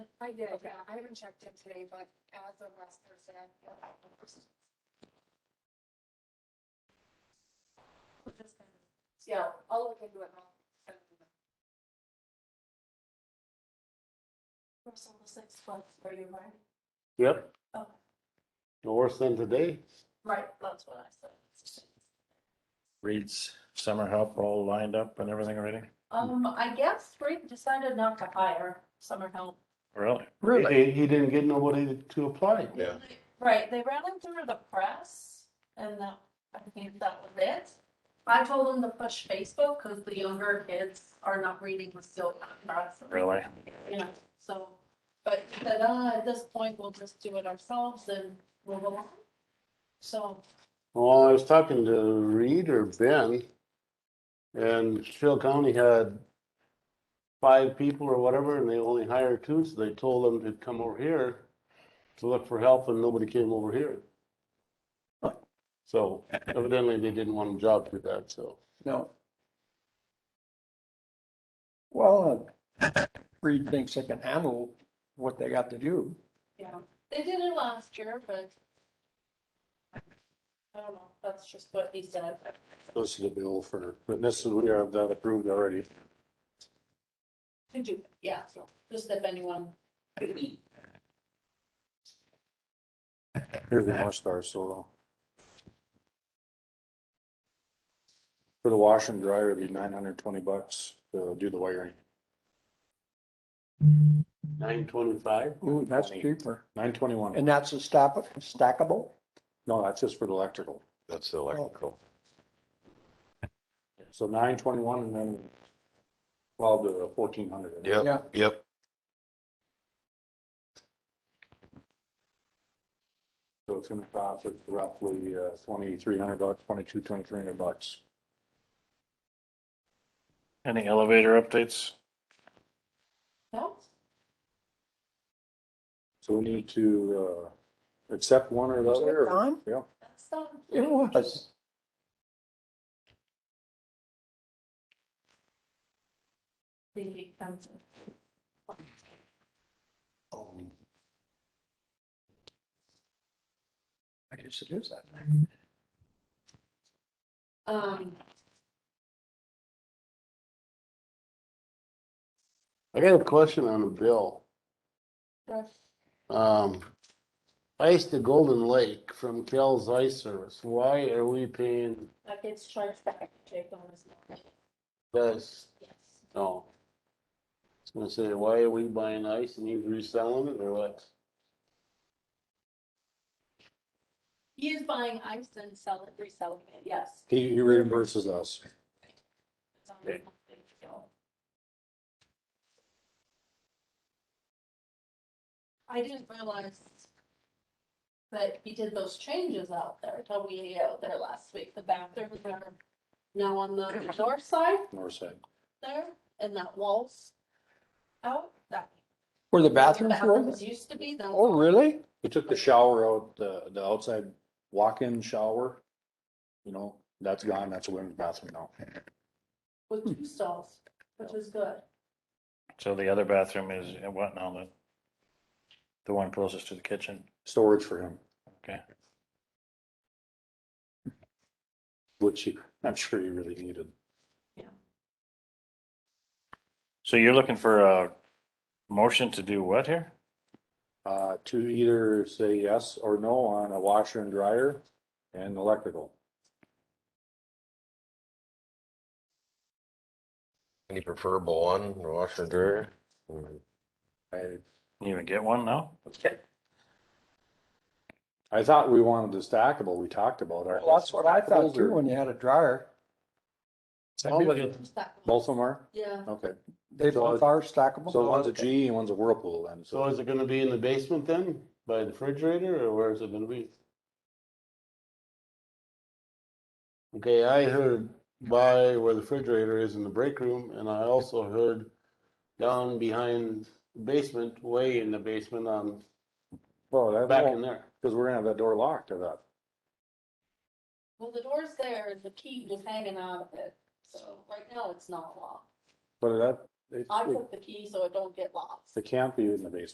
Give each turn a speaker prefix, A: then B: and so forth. A: I did,
B: Okay.
A: yeah. I haven't checked in today, but as of last Thursday, I feel like. We're just gonna-
B: Yeah.
A: I'll look into it now.
B: Russell, the sixth one, are you right?
C: Yep,
B: Oh,
C: no worse than today.
B: right, that's what I said.
D: Reed's summer help all lined up and everything already?
B: Um, I guess Rick decided not to hire summer help.
D: Really?
E: Really?
C: He, he didn't get nobody to apply.
D: Yeah.
B: Right, they ran him through the press and that, I think that was it. I told him to push Facebook because the younger kids are not reading the still press.
D: Really?
B: Yeah, so, but he said, uh, at this point, we'll just do it ourselves and move along. So,
C: Well, I was talking to Reed or Ben, and Carroll County had five people or whatever, and they only hired two, so they told them to come over here to look for help, and nobody came over here. So evidently, they didn't want a job for that, so.
E: No. Well, uh, Reed thinks they can handle what they got to do.
B: yeah, they did it last year, but I don't know, that's just what he said.
C: This is a bill for, but this is, we have that approved already.
B: To do, yeah, so just if anyone,
C: Here's the North Star Solar. For the wash and dryer, it'd be nine hundred twenty bucks to do the wiring. Nine twenty-five?
E: Ooh, that's cheaper.
C: Nine twenty-one.
E: And that's a stack, stackable?
C: No, that's just for the electrical.
F: That's the electrical.
C: So nine twenty-one and then twelve to fourteen hundred.
E: Yeah.
F: Yep, yep.
C: So it's gonna cost us roughly uh, twenty-three hundred bucks, twenty-two, twenty-three hundred bucks.
D: Any elevator updates?
B: no,
C: So we need to, uh, accept one or the
E: Is
C: other.
E: it
C: or-
E: on?
C: Yeah.
B: that's not.
E: It was.
B: The expensive.
E: I guess it is that.
B: Um,
C: I got a question on the bill.
B: that's-
C: Um, ice to Golden Lake from Kel's Ice Service. Why are we paying
B: that gets charged back to Jake on his.
C: this?
B: Yes.
G: Oh.
C: No. I was gonna say, why are we buying ice and he's reselling it or what?
B: He is buying ice and selling, reselling it, yes.
C: He, he reimburses us.
B: It's on
C: Okay.
B: the bill. I didn't realize that he did those changes out there, until we ate out there last week, the bathrooms are now on the north side
C: North side.
B: there, and that wall's out, that.
E: Where the bathrooms were?
B: Bathrooms used to be, those
E: Oh, really?
C: We took the shower out, the, the outside walk-in shower. You know, that's gone. That's a women's bathroom now.
B: with two stalls, which is good.
D: So the other bathroom is in what now? The, the one closest to the kitchen?
C: Storage for him.
D: Okay.
C: Which he- I'm sure he really needed.
D: So you're looking for a motion to do what here?
C: Uh, to either say yes or no on a washer and dryer and electrical.
F: Any preferable one, washer and dryer?
C: I,
D: You even get one now?
C: I thought we wanted the stackable, we talked about. our-
E: Well, that's what I thought too, when you had a dryer.
B: That one.
C: Both of them are?
B: Yeah,
C: Okay,
E: They
C: So
E: both
C: it-
E: are stackable.
C: so one's a G and one's a Whirlpool then,
G: So
C: so.
G: is it gonna be in the basement then, by the refrigerator, or where is it gonna be?
C: Okay,
G: I heard by where the refrigerator is in the break room, and I also heard down behind the basement, way in the basement on,
C: Well, that,
G: back in there.
C: because we're gonna have that door locked, I thought.
B: well, the door's there, and the key was hanging out of it, so right now it's not locked.
C: But that,
B: I
C: it,
B: put the key so it don't get lost.
C: it can't be in the basement.